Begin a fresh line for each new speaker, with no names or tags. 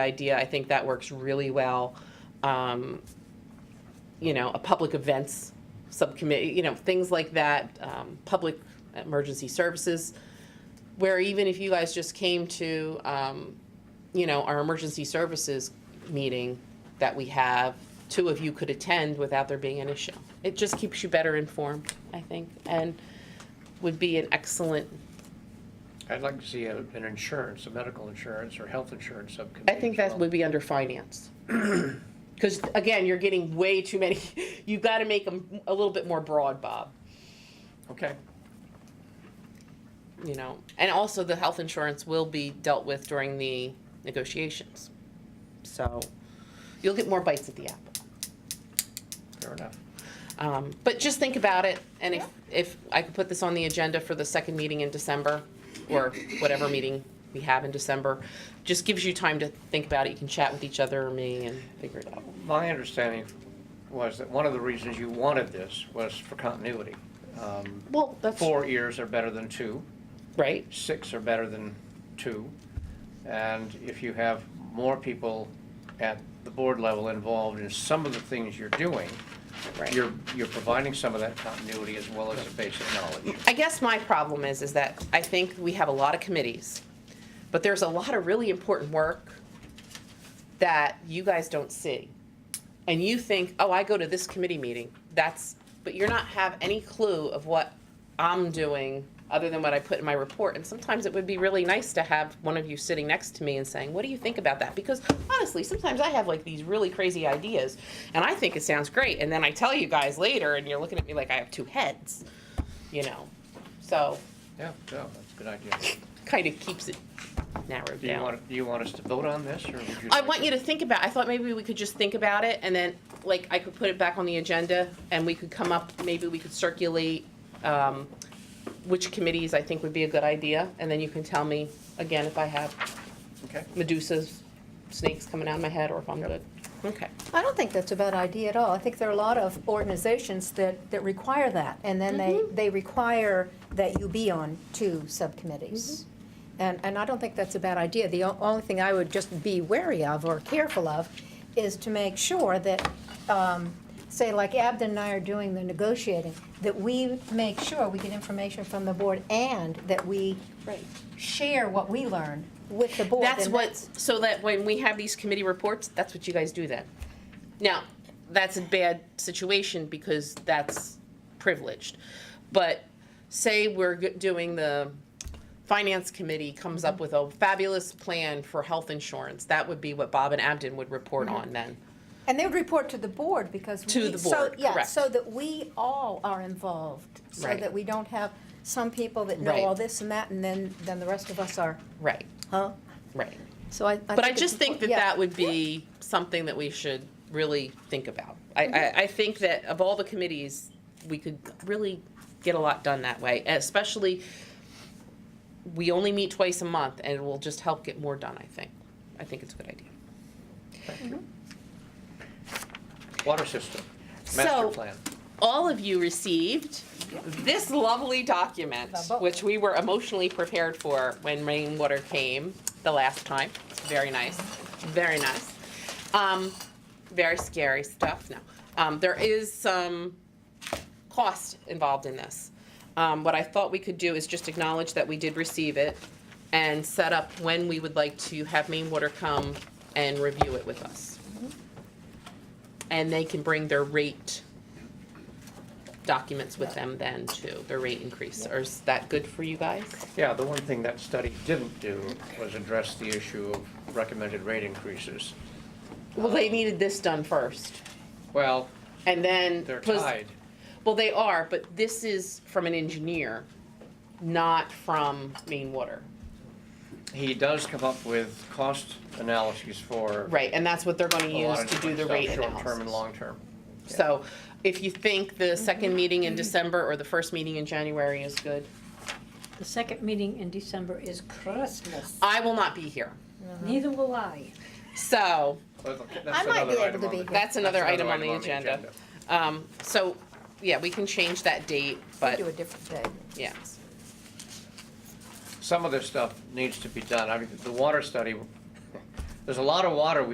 idea. I think that works really well. Um, you know, a public events subcommittee, you know, things like that, um, public emergency services, where even if you guys just came to, um, you know, our emergency services meeting that we have, two of you could attend without there being an issue. It just keeps you better informed, I think, and would be an excellent,
I'd like to see a- an insurance, a medical insurance or health insurance
I
subcommittee.
think that
as well.
would be under finance. Because again, you're getting way too many, you've got to make them a little bit more broad, Bob.
Okay,
you know, and also the health insurance will be dealt with during the negotiations. So you'll get more bites at the apple.
fair enough.
Um, but just think about it, and if, if I could put this on the agenda for the second meeting in December, or whatever meeting we have in December, just gives you time to think about it. You can chat with each other or me and figure it out.
My understanding was that one of the reasons you wanted this was for continuity. Um,
Well, that's
Four years are better than two,
right.
six are better than two. And if you have more people at the board level involved in some of the things you're doing,
Right.
you're, you're providing some of that continuity as well as the basic knowledge.
I guess my problem is, is that I think we have a lot of committees, but there's a lot of really important work that you guys don't see. And you think, oh, I go to this committee meeting, that's, but you're not have any clue of what I'm doing other than what I put in my report. And sometimes it would be really nice to have one of you sitting next to me and saying, what do you think about that? Because honestly, sometimes I have like these really crazy ideas and I think it sounds great. And then I tell you guys later and you're looking at me like I have two heads you know. So
Yeah, yeah, that's a good idea.
kind of keeps it narrowed
Do you
down.
want, do you want us to vote on this, or would you?
I
like
want
to-
you to think about, I thought maybe we could just think about it and then, like, I could put it back on the agenda and we could come up, maybe we could circulate, um, which committees I think would be a good idea, and then you can tell me again if I have
Okay,
Medusa's snakes coming out of my head or if I'm
Yep.
good. Okay.
I don't think that's a bad idea at all. I think there are a lot of organizations that, that require that, and then they,
Mm-hmm.
they require that you be on two
Mm-hmm.
subcommittees. And, and I don't think that's a bad idea. The o- only thing I would just be wary of or careful of is to make sure that, um, say, like Abden and I are doing the negotiating, that we make sure we get information from the board and that we
Right.
share what we learn with the board.
That's
and
what, so that when we have these committee reports, that's what you guys do then. Now, that's a bad situation because that's privileged. But say we're g- doing the finance committee comes up with a fabulous plan for health insurance. That would be what Bob and Abden would report on then.
And they would report to the board because.
To
we-
the
so-
board,
Yeah,
correct.
so that we all are involved, so
Right.
that we don't have some people that know
Right.
all this and that, and then, then the rest of us are,
Right,
huh?
right.
So I.
But I
it's
just think that
important- yeah.
that would be something that we should really think about. I,
Mm-hmm.
I, I think that of all the committees, we could really get a lot done that way, especially, we only meet twice a month, and it will just help get more done, I think. I think it's a good idea.
water system, master
So-
plan.
All of you received this lovely document,
The book.
which we were emotionally prepared for when rainwater came the last time. It's very nice, very nice. Um, very scary stuff. No, um, there is some cost involved in this. Um, what I thought we could do is just acknowledge that we did receive it and set up when we would like to have Maine Water come and review it with us.
Mm-hmm.
And they can bring their rate documents with them then too, their rate increase. Or is that good for you guys?
Yeah, the one thing that study didn't do was address the issue of recommended rate increases.
Well, they needed this done first.
Well,
And then.
they're
pos-
tied.
Well, they are, but this is from an engineer, not from Maine Water.
He does come up with cost analyses for.
Right, and that's what they're gonna
a
use
lot of
to do
different
the
stuff,
rate
Short-term and
analysis.
long-term.
So if you think the second meeting in December or the first meeting in January is good,
The second meeting in December is Christmas.
I will not be here.
Neither will I.
So,
But that's
I might
another
be able
item
to
on
be
the-
here.
that's another item on the agenda.
agenda.
Um, so, yeah, we can change that date,
We
but,
Do a different day.
yeah.
Some of this stuff needs to be done. I mean, the water study, there's a lot of water we